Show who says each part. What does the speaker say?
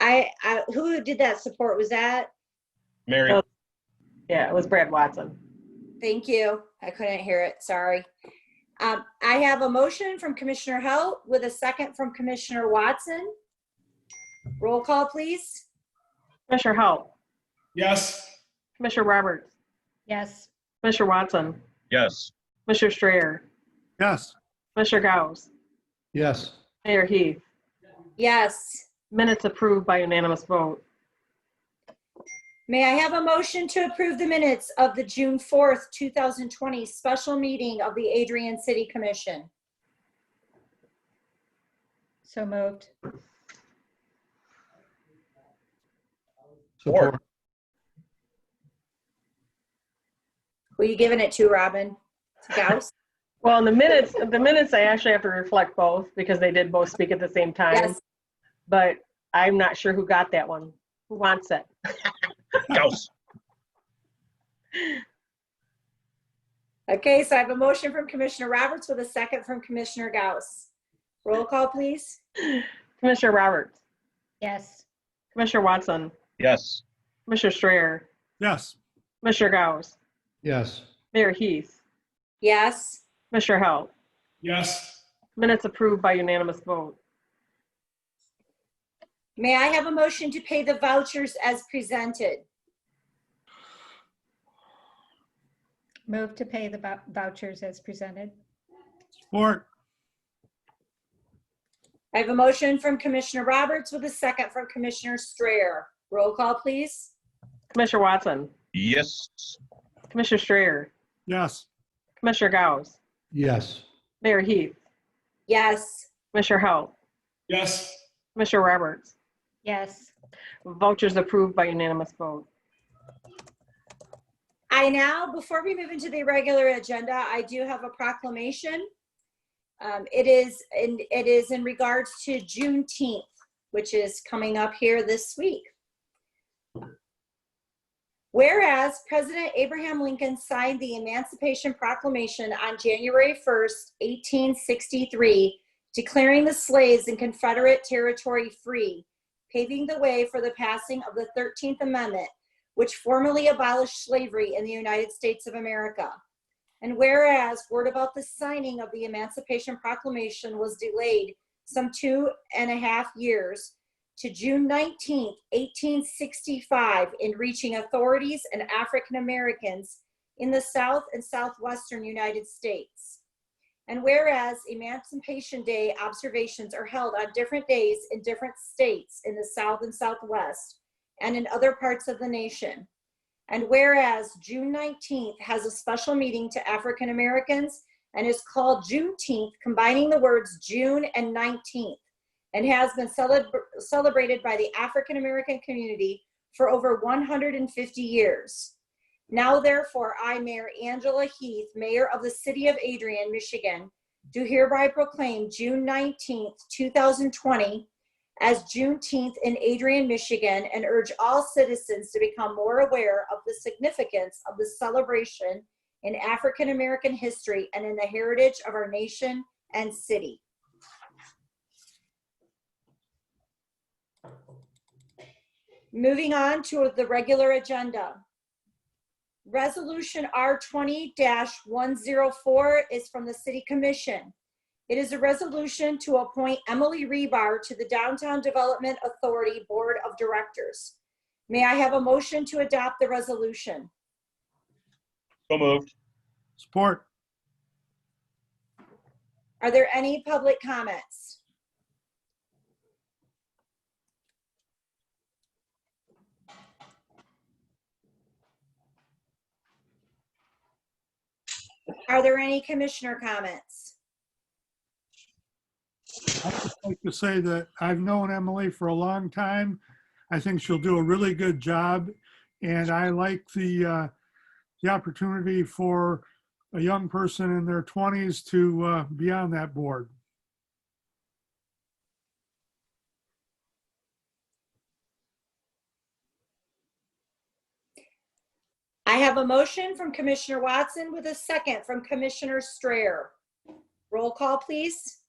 Speaker 1: I, I, who did that support? Was that?
Speaker 2: Mary,
Speaker 3: Oh. Yeah, it was Brad Watson.
Speaker 1: Thank you. I couldn't hear it. Sorry. Um, I have a motion from Commissioner Halt with a second from Commissioner Watson. Roll call, please.
Speaker 3: Commissioner Halt,
Speaker 4: Yes.
Speaker 3: Commissioner Roberts,
Speaker 5: yes,
Speaker 3: Commissioner Watson,
Speaker 2: yes.
Speaker 3: Commissioner Strayer,
Speaker 4: Yes.
Speaker 3: Commissioner Gauss,
Speaker 4: Yes.
Speaker 3: Mayor Heath.
Speaker 1: Yes.
Speaker 3: Minutes approved by unanimous vote.
Speaker 1: May I have a motion to approve the minutes of the June 4th, 2020 special meeting of the Adrian City Commission?
Speaker 5: so moved,
Speaker 2: Support.
Speaker 1: Were you giving it to Robin Gauss?
Speaker 3: Well, in the minutes, the minutes, I actually have to reflect both because they did both speak at the same time.
Speaker 1: Yes.
Speaker 3: But I'm not sure who got that one. Who wants it?
Speaker 2: Gauss,
Speaker 1: Okay, so I have a motion from Commissioner Roberts with a second from Commissioner Gauss. Roll call, please.
Speaker 3: Commissioner Roberts,
Speaker 5: yes,
Speaker 3: Commissioner Watson,
Speaker 2: yes.
Speaker 3: Commissioner Strayer,
Speaker 4: Yes.
Speaker 3: Commissioner Gauss,
Speaker 4: Yes.
Speaker 3: Mayor Heath,
Speaker 1: Yes.
Speaker 3: Commissioner Halt.
Speaker 4: Yes.
Speaker 3: Minutes approved by unanimous vote.
Speaker 1: May I have a motion to pay the vouchers as presented?
Speaker 5: move to pay the vou- vouchers as presented,
Speaker 4: Support.
Speaker 1: I have a motion from Commissioner Roberts with a second from Commissioner Strayer. Roll call, please.
Speaker 3: Commissioner Watson,
Speaker 2: Yes.
Speaker 3: Commissioner Strayer,
Speaker 4: Yes.
Speaker 3: Commissioner Gauss,
Speaker 4: Yes.
Speaker 3: Mayor Heath,
Speaker 1: Yes.
Speaker 3: Commissioner Halt,
Speaker 4: Yes.
Speaker 3: Commissioner Roberts.
Speaker 5: yes,
Speaker 3: Vouchers approved by unanimous vote.
Speaker 1: I now, before we move into the regular agenda, I do have a proclamation. Um, it is, and it is in regards to Juneteenth, which is coming up here this week. Whereas President Abraham Lincoln signed the Emancipation Proclamation on January 1st, 1863, declaring the slaves in Confederate territory free, paving the way for the passing of the 13th Amendment, which formally abolished slavery in the United States of America. And whereas word about the signing of the Emancipation Proclamation was delayed some two and a half years to June 19, 1865, in reaching authorities and African Americans in the South and Southwestern United States. And whereas Emancipation Day observations are held on different days in different states in the South and Southwest, and in other parts of the nation. And whereas June 19th has a special meeting to African Americans and is called Juneteenth, combining the words June and 19th, and has been celeb- celebrated by the African American community for over 150 years. Now, therefore, I, Mayor Angela Heath, Mayor of the City of Adrian, Michigan, do hereby proclaim June 19th, 2020 as Juneteenth in Adrian, Michigan, and urge all citizens to become more aware of the significance of the celebration in African American history and in the heritage of our nation and city. Moving on to the regular agenda. Resolution R twenty one zero four is from the City Commission. It is a resolution to appoint Emily Rebar to the Downtown Development Authority Board of Directors. May I have a motion to adopt the resolution?
Speaker 2: So moved.
Speaker 4: Support.
Speaker 1: Are there any public comments? Are there any commissioner comments?
Speaker 6: I'd like to say that I've known Emily for a long time. I think she'll do a really good job, and I like the, uh, the opportunity for a young person in their 20s to uh, be on that board.
Speaker 1: I have a motion from Commissioner Watson with a second from Commissioner Strayer. Roll call, please.